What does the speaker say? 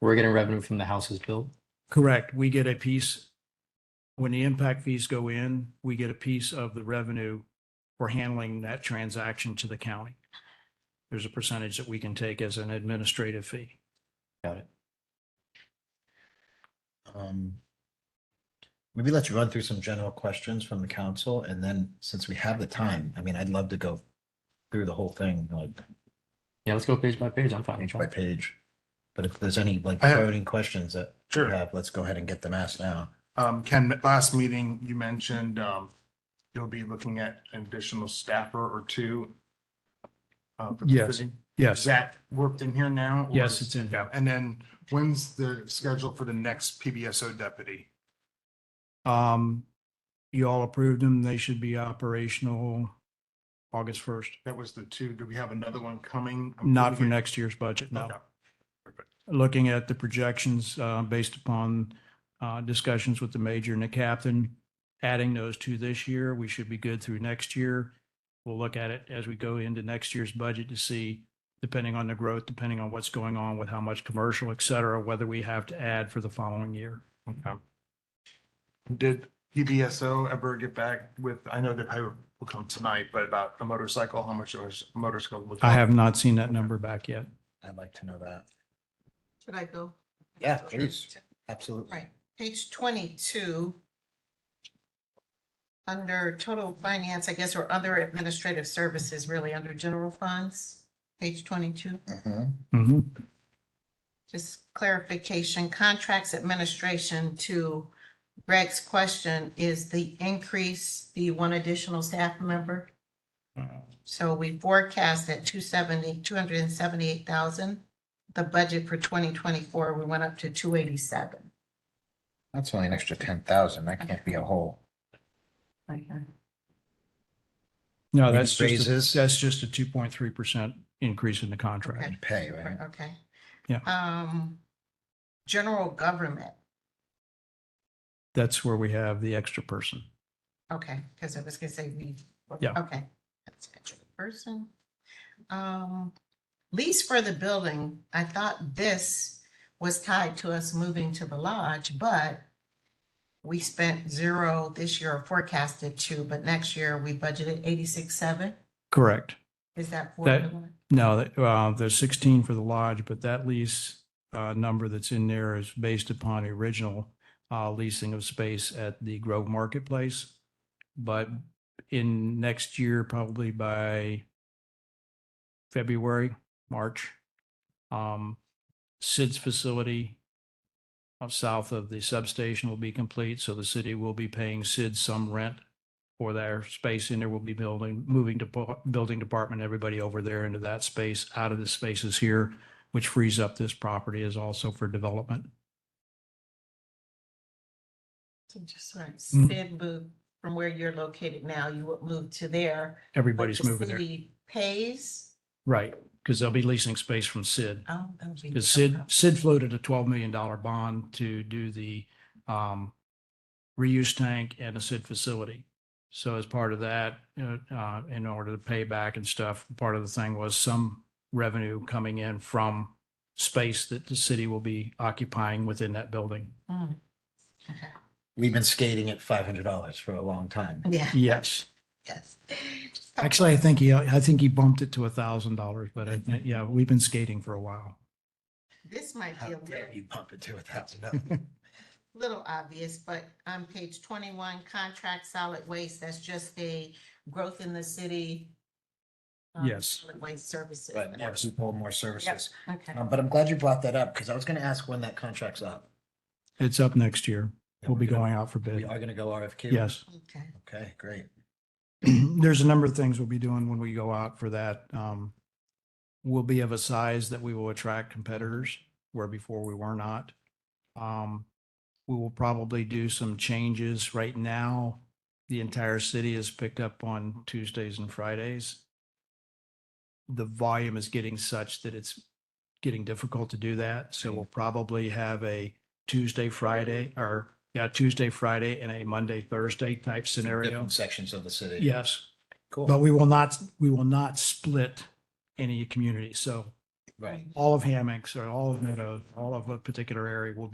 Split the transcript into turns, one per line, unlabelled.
We're getting revenue from the houses built.
Correct. We get a piece, when the impact fees go in, we get a piece of the revenue for handling that transaction to the county. There's a percentage that we can take as an administrative fee.
Got it.
Um, Maybe let's run through some general questions from the council and then since we have the time, I mean, I'd love to go through the whole thing like
Yeah, let's go page by page. I'm fine. with
page by
that.
page. But if there's any like
I have-
voting questions that we
Sure.
have, let's go ahead and get them asked now.
Um, Ken, last meeting, you mentioned, um, you'll be looking at an additional staffer or two. uh, for the
Yes.
city. Is
Yes.
that worked in here now? or-
Yes, it's in here.
Yeah, and then when's the schedule for the next PBSO deputy?
Um, you all approved them. They should be operational August first,
That was the two. Do we have another one coming? I'm
not for
thinking-
next year's budget, no.
Okay.
looking at the projections uh, based upon uh, discussions with the major and the captain, adding those to this year, we should be good through next year. We'll look at it as we go into next year's budget to see, depending on the growth, depending on what's going on with how much commercial, et cetera, whether we have to add for the following year.
Okay. Did PBSO ever get back with, I know that I will come tonight, but about the motorcycle, how much was motorcycle? would
I
cost?
have not seen that number back yet.
I'd like to know that.
Should I go?
Yeah, please. Absolutely.
Right, page twenty-two. Under total finance, I guess, or other administrative services, really under general funds, page twenty-two.
Mhm.
Mhm.
Just clarification, contracts administration to Greg's question, is the increase the one additional staff member? So we forecast at 270, 278,000. The budget for twenty twenty-four, we went up to two eighty-seven.
That's only an extra ten thousand. That can't be a whole.
Okay.
No, that's just,
Raises.
a- that's just a two point three percent increase in the contract.
You pay, right?
Okay.
Yeah.
Um, general government,
That's where we have the extra person.
okay, because I was gonna say we.
Yeah.
Okay, that's a general person. Um, lease for the building, I thought this was tied to us moving to the lodge, but we spent zero this year, or forecasted two, but next year we budgeted eighty-six, seven.
Correct.
Is that? for
That-
the one?
No, that- well, there's 16 for the lodge, but that lease uh, number that's in there is based upon original uh, leasing of space at the Grove Marketplace. But in next year, probably by February, March, um, Sid's facility up south of the substation will be complete, so the city will be paying Sid some rent for their space in there. We'll be building, moving to bu- building department, everybody over there into that space, out of the spaces here, which frees up this property is also for development.
So just sort of
Mhm.
Sid moved from where you're located now, you would move to there. but
Everybody's
the
moving there.
city Pays.
Right, because they'll be leasing space from Sid.
Oh, that would be-
Because Sid,
okay.
Sid floated a twelve million dollar bond to do the um reuse tank and a Sid facility. So as part of that, you know, uh, in order to pay back and stuff, part of the thing was some revenue coming in from space that the city will be occupying within that building.
Mm. Okay.
We've been skating at five hundred dollars for a long time.
Yeah,
Yes.
yes.
Actually, I think he, I think he bumped it to a thousand dollars, but I, think- yeah, we've been skating for a while.
This might
How
be a
dare
little,
you bump it to a thousand dollars?
little obvious, but on page twenty-one, contract solid waste, that's just a growth in the city. um,
Yes.
solid Waste services.
But more people, more services.
Okay,
Um, but I'm glad you brought that up because I was going to ask when that contract's up.
It's up next year. We'll be
We're gonna-
going out for
We
bid.
are going to go RFQ.
Yes.
okay.
Okay, great.
there's a number of things we'll be doing when we go out for that. Um, we'll be of a size that we will attract competitors where before we were not. Um, we will probably do some changes right now. The entire city is picked up on Tuesdays and Fridays. The volume is getting such that it's getting difficult to do that. So we'll probably have a Tuesday, Friday, or yeah, Tuesday, Friday and a Monday, Thursday type scenario.
Different sections of the city.
Yes.
Cool.
But we will not, we will not split any community. So
Right.
all of hammocks or all of meadows, all of a particular area will be.